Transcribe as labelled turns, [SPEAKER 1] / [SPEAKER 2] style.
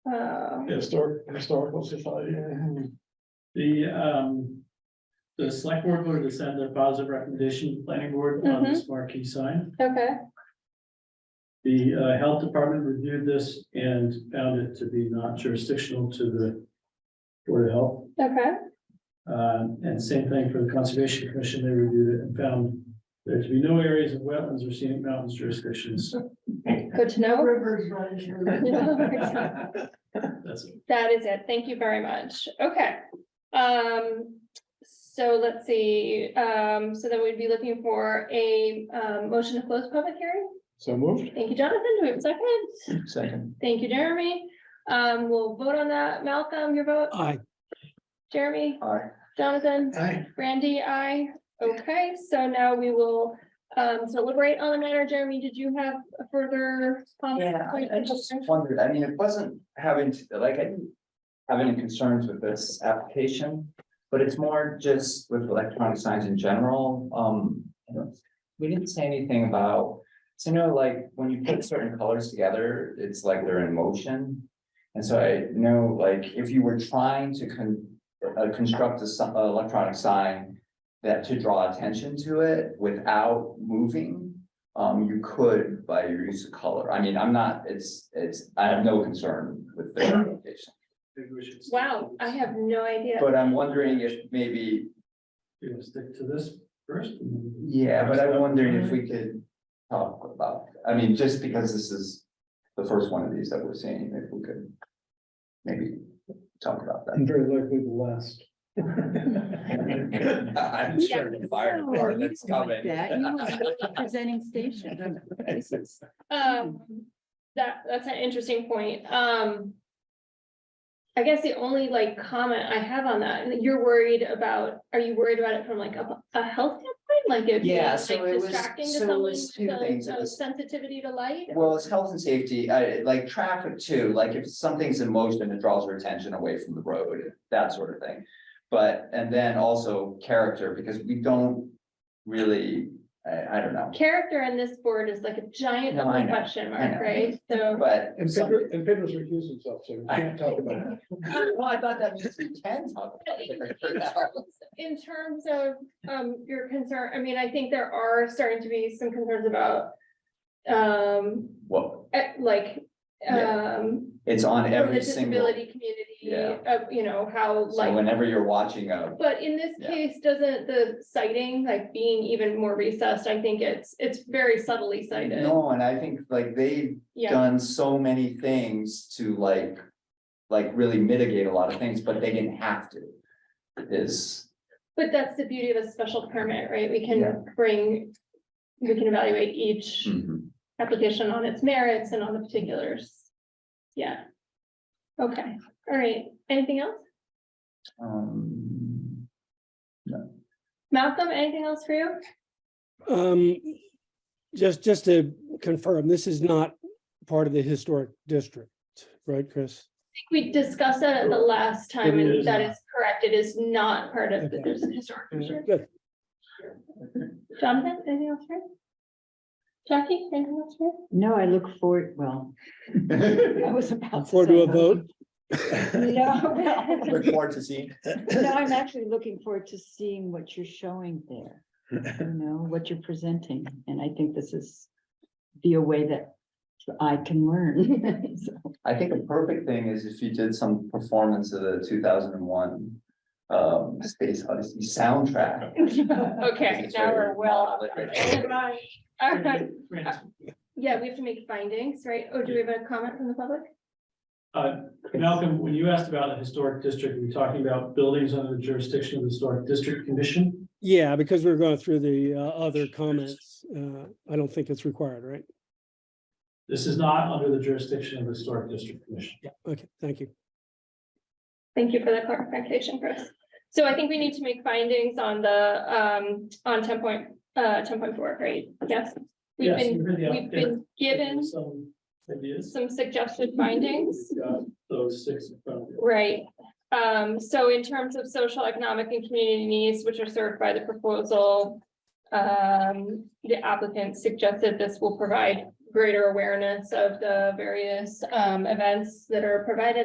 [SPEAKER 1] uh,
[SPEAKER 2] Historic, historical society.
[SPEAKER 3] The, um, the select board voted to send a positive recommendation to the planning board on this
[SPEAKER 1] Mm-hmm.
[SPEAKER 3] marquee sign.
[SPEAKER 1] okay,
[SPEAKER 3] The, uh, health department reviewed this and found it to be not jurisdictional to the Board of Health.
[SPEAKER 1] okay,
[SPEAKER 3] Um, and same thing for the Conservation Commission, they reviewed it and found there to be no areas of wetlands or scenic mountains jurisdictions.
[SPEAKER 1] good to know.
[SPEAKER 4] Rivers run through.
[SPEAKER 1] That
[SPEAKER 3] That's it.
[SPEAKER 1] is it. Thank you very much. Okay. Um, so let's see, um, so then we'd be looking for a, um, motion to close public hearing.
[SPEAKER 2] So moved.
[SPEAKER 1] Thank you, Jonathan. Do we have a second?
[SPEAKER 2] Second.
[SPEAKER 1] Thank you, Jeremy. Um, we'll vote on that. Malcolm, your vote?
[SPEAKER 5] Aye.
[SPEAKER 1] Jeremy?
[SPEAKER 2] Aye.
[SPEAKER 1] Jonathan?
[SPEAKER 3] Aye.
[SPEAKER 1] Randy, I, okay, so now we will um deliberate on the matter. Jeremy, did you have a further? comment?
[SPEAKER 4] Yeah, I I just wondered, I mean, it wasn't having, to like, I didn't have any concerns with this application. But it's more just with electronic signs in general, um, you know, we didn't say anything about. So you know, like, when you put certain colors together, it's like they're in motion. And so I know, like, if you were trying to con- uh, construct a si- a electronic sign. That to draw attention to it without moving, um, you could by your use of color. I mean, I'm not, it's, it's, I have no concern with the application.
[SPEAKER 3] Maybe we should stick to
[SPEAKER 1] Wow, I
[SPEAKER 3] this.
[SPEAKER 1] have no idea.
[SPEAKER 4] But I'm wondering if maybe,
[SPEAKER 3] You want to stick to this first?
[SPEAKER 4] yeah, but I'm wondering if we could talk about, I mean, just because this is the first one of these that we're seeing, if we could maybe talk about that.
[SPEAKER 2] And very likely the last.
[SPEAKER 4] I'm sure the fire
[SPEAKER 6] so
[SPEAKER 4] department's
[SPEAKER 6] you don't
[SPEAKER 4] coming.
[SPEAKER 6] like that. You want to be Presenting station.
[SPEAKER 1] Um, that, that's an interesting point. Um. I guess the only like comment I have on that, and you're worried about, are you worried about it from like a, a health standpoint? Like it being
[SPEAKER 4] Yeah, so it
[SPEAKER 1] like
[SPEAKER 4] was-
[SPEAKER 1] distracting to
[SPEAKER 4] so it
[SPEAKER 1] someone
[SPEAKER 4] was
[SPEAKER 1] with
[SPEAKER 4] two things.
[SPEAKER 1] the
[SPEAKER 4] It
[SPEAKER 1] uh,
[SPEAKER 4] was-
[SPEAKER 1] sensitivity to light?
[SPEAKER 4] Well, it's health and safety, I like traffic too, like if something's in motion, it draws your attention away from the road, that sort of thing. But, and then also character, because we don't really, I, I don't know,
[SPEAKER 1] Character in this board is like a giant
[SPEAKER 4] No, I know,
[SPEAKER 1] question
[SPEAKER 4] I
[SPEAKER 1] mark,
[SPEAKER 4] know.
[SPEAKER 1] right? So.
[SPEAKER 4] but.
[SPEAKER 2] And Pedro, and Pedro's recused himself, so we can't talk about it.
[SPEAKER 4] Well, I thought that means we can talk
[SPEAKER 1] But
[SPEAKER 4] about
[SPEAKER 1] In
[SPEAKER 4] it.
[SPEAKER 1] in terms- in terms of um your concern, I mean, I think there are starting to be some concerns about um,
[SPEAKER 4] Well,
[SPEAKER 1] eh, like um,
[SPEAKER 4] it's on
[SPEAKER 1] for the
[SPEAKER 4] every single,
[SPEAKER 1] disability community
[SPEAKER 4] Yeah.
[SPEAKER 1] of, you know, how
[SPEAKER 4] so
[SPEAKER 1] like,
[SPEAKER 4] whenever you're watching a,
[SPEAKER 1] but in this
[SPEAKER 4] Yeah.
[SPEAKER 1] case, doesn't the sighting, like being even more recessed, I think it's, it's very subtly cited.
[SPEAKER 4] no, and I think like they
[SPEAKER 1] Yeah,
[SPEAKER 4] done so many things to like, like really mitigate a lot of things, but they didn't have to. Is,
[SPEAKER 1] but that's the beauty of a special permit, right? We
[SPEAKER 4] Yeah. Hmm.
[SPEAKER 1] can bring, we can evaluate each application on its merits and on the particulars. Yeah. Okay, all right, anything else?
[SPEAKER 4] um,
[SPEAKER 1] Malcolm, anything else for you?
[SPEAKER 5] Um, just, just to confirm, this is not part of the historic district, right, Chris?
[SPEAKER 1] We discussed that at the last time, and
[SPEAKER 3] It is Mm-hmm.
[SPEAKER 1] that
[SPEAKER 3] not.
[SPEAKER 1] is correct, it is not part of the
[SPEAKER 5] Okay.
[SPEAKER 1] there's a historic district.
[SPEAKER 5] Good.
[SPEAKER 1] Jonathan, anything else for you? Jackie, anything else for you?
[SPEAKER 6] No, I look forward, well, I was
[SPEAKER 5] Look
[SPEAKER 6] about.
[SPEAKER 5] Forward to
[SPEAKER 6] say
[SPEAKER 5] a
[SPEAKER 6] no.
[SPEAKER 5] vote.
[SPEAKER 6] No, well,
[SPEAKER 4] Look forward to seeing.
[SPEAKER 6] no, I'm actually looking forward to seeing what you're showing there. You know, what you're presenting, and I think this is be a way that I can learn. So,
[SPEAKER 4] I think a perfect thing is if you did some performance of the two thousand and one. Um, Space Odyssey soundtrack.
[SPEAKER 1] Okay,
[SPEAKER 4] It's
[SPEAKER 1] now
[SPEAKER 4] very
[SPEAKER 1] we're well. off
[SPEAKER 4] modern.
[SPEAKER 1] track. Goodbye. All right,
[SPEAKER 3] Right.
[SPEAKER 1] yeah, we have to make findings, right? Oh, do we have a comment from the public?
[SPEAKER 3] Uh, Malcolm, when you asked about the historic district, were you talking about buildings under the jurisdiction of the historic district commission?
[SPEAKER 5] Yeah, because we're going through the uh, other comments. Uh, I don't think it's required, right?
[SPEAKER 3] This is not under the jurisdiction of the historic district commission.
[SPEAKER 5] Yeah. Okay, thank you.
[SPEAKER 1] Thank you for the clarification, Chris. So I think we need to make findings on the, um, on ten point, uh, ten point four, right? Yes. We've
[SPEAKER 3] Yes,
[SPEAKER 1] been,
[SPEAKER 3] you heard the
[SPEAKER 1] we've been given
[SPEAKER 3] applicant. Some ideas,
[SPEAKER 1] some suggested findings,
[SPEAKER 3] uh, those six in front of you.
[SPEAKER 1] right? Um, so in terms of social, economic and community needs, which are served by the proposal, um, the applicant suggested this will provide greater awareness of the various, um, events that are provided